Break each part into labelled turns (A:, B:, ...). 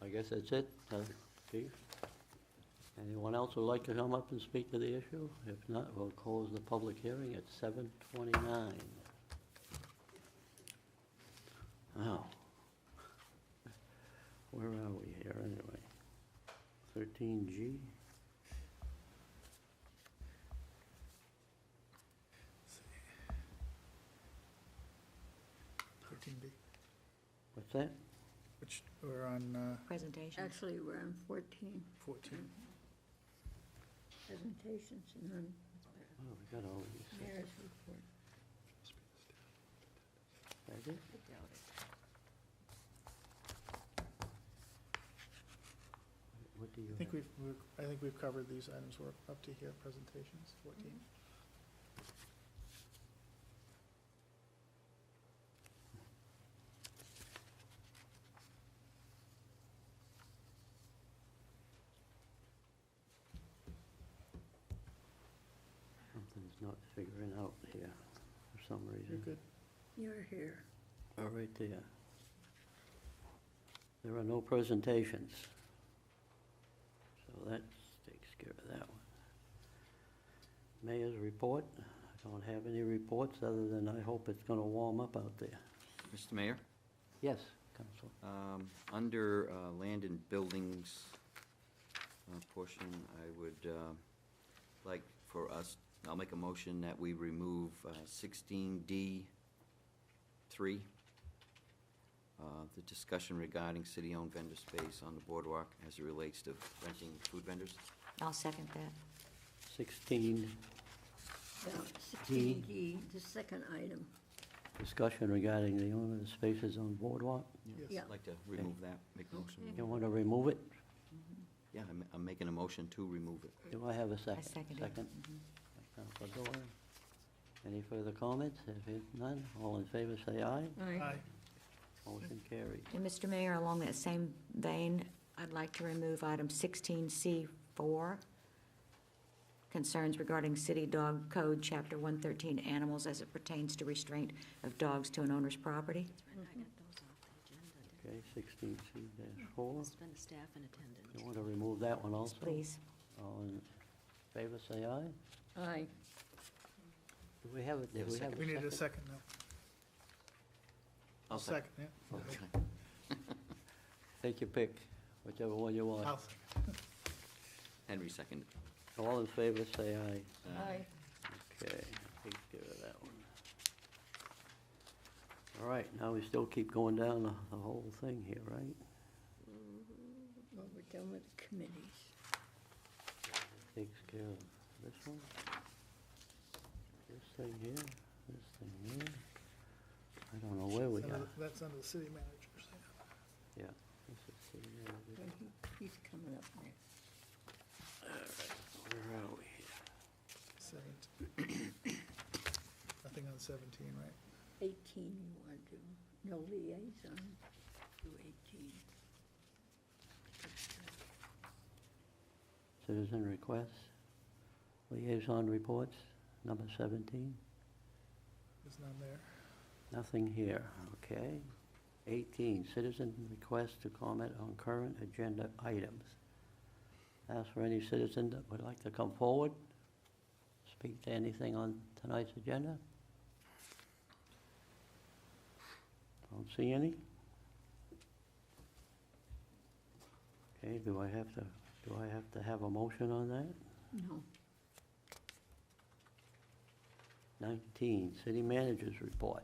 A: I guess that's it, uh, Chief. Anyone else would like to come up and speak to the issue? If not, we'll close the public hearing at seven twenty-nine. Now, where are we here anyway? Thirteen G?
B: Thirteen B,
A: What's that?
B: which, we're on uh,
C: presentations.
D: Actually, we're on 14
B: fourteen.
D: presentations and then
A: Oh, we got all these.
D: mayor's report.
A: Is that it? What do you
B: I
A: have?
B: think we've, we're- I think we've covered these items, we're up to here, presentations, fourteen.
A: Something's not figuring out here for some
B: You're
A: reason.
B: good.
D: You're here.
A: Oh, right there. There are no presentations. So that takes care of that one. Mayor's report, I don't have any reports other than I hope it's gonna warm up out there.
E: Mr. Mayor,
A: Yes, Council.
E: um, under uh, land and buildings uh, portion, I would uh, like for us, I'll make a motion that we remove uh, sixteen D three, uh, the discussion regarding city-owned vendor space on the boardwalk as it relates to renting food vendors.
C: I'll second that.
A: Sixteen,
D: Yeah, 16D, the second item.
A: discussion regarding the owner of the spaces on boardwalk.
D: Yeah.
E: I'd like to remove that, make a motion.
A: You wanna remove it?
E: Yeah, I'm- I'm making a motion to remove it.
A: Do I have a second?
C: second it.
A: by Council Doran. Any further comments? If it- none, all in favor say aye.
B: Aye.
A: Motion carried.
C: And Mr. Mayor, along that same vein, I'd like to remove item 16C4, concerns regarding city dog code, chapter 113, animals as it pertains to restraint of dogs to an owner's property.
A: Okay, sixteen C four.
F: It's been staff in attendance.
A: You want to remove that one also?
C: Please.
A: All in favor say aye.
D: Aye.
A: Do we have it?
E: Yeah,
A: we have
B: We need a second now.
E: I'll second.
B: yeah.
A: Take your pick, whichever one you want.
B: I'll second.
E: Henry seconded.
A: All in favor say aye.
E: Uh,
D: Aye.
A: Okay, take care of that one. All right, now we still keep going down the- the whole thing here, right?
D: Well, we're done with the committees.
A: takes care of this one. This thing here, this thing here. I don't know where we
B: That's
A: are.
B: under- That's under the city managers.
A: Yeah. this is city
D: Well,
A: manager.
D: he- He's coming up next.
A: Where are we here?
B: Seventeen. Nothing on seventeen, right?
D: 18 you want to, no liaison to 18.
A: Citizen requests, liaison reports, number seventeen.
B: There's none there.
A: Nothing here, okay. 18, citizen request to comment on current agenda items. Ask for any citizen that would like to come forward, speak to anything on tonight's agenda. Don't see any. Okay, do I have to, do I have to have a motion on that?
D: No.
A: 19, city managers report.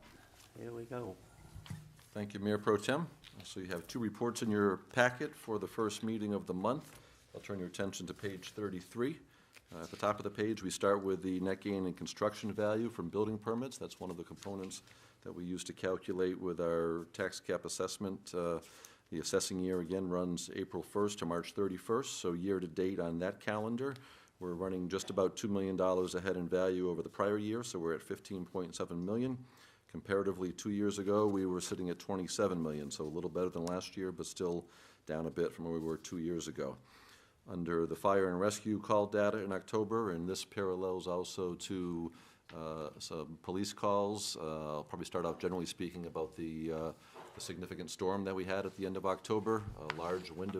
A: Here we go.
G: Thank you, Mayor Pro Tem. So you have two reports in your packet for the first meeting of the month. I'll turn your attention to page 33. Uh, At the top of the page, we start with the net gain in construction value from building permits. That's one of the components that we use to calculate with our tax cap assessment. Uh, The assessing year again runs April 1st to March 31st, so year-to-date on that calendar, we're running just about $2 million ahead in value over the prior year, so we're at 15.7 million. Comparatively, two years ago, we were sitting at 27 million, so a little better than last year, but still down a bit from where we were two years ago. Under the fire and rescue call data in October, and this parallels also to uh, some police calls, uh, I'll probably start off generally speaking about the uh, the significant storm that we had at the end of October, a large wind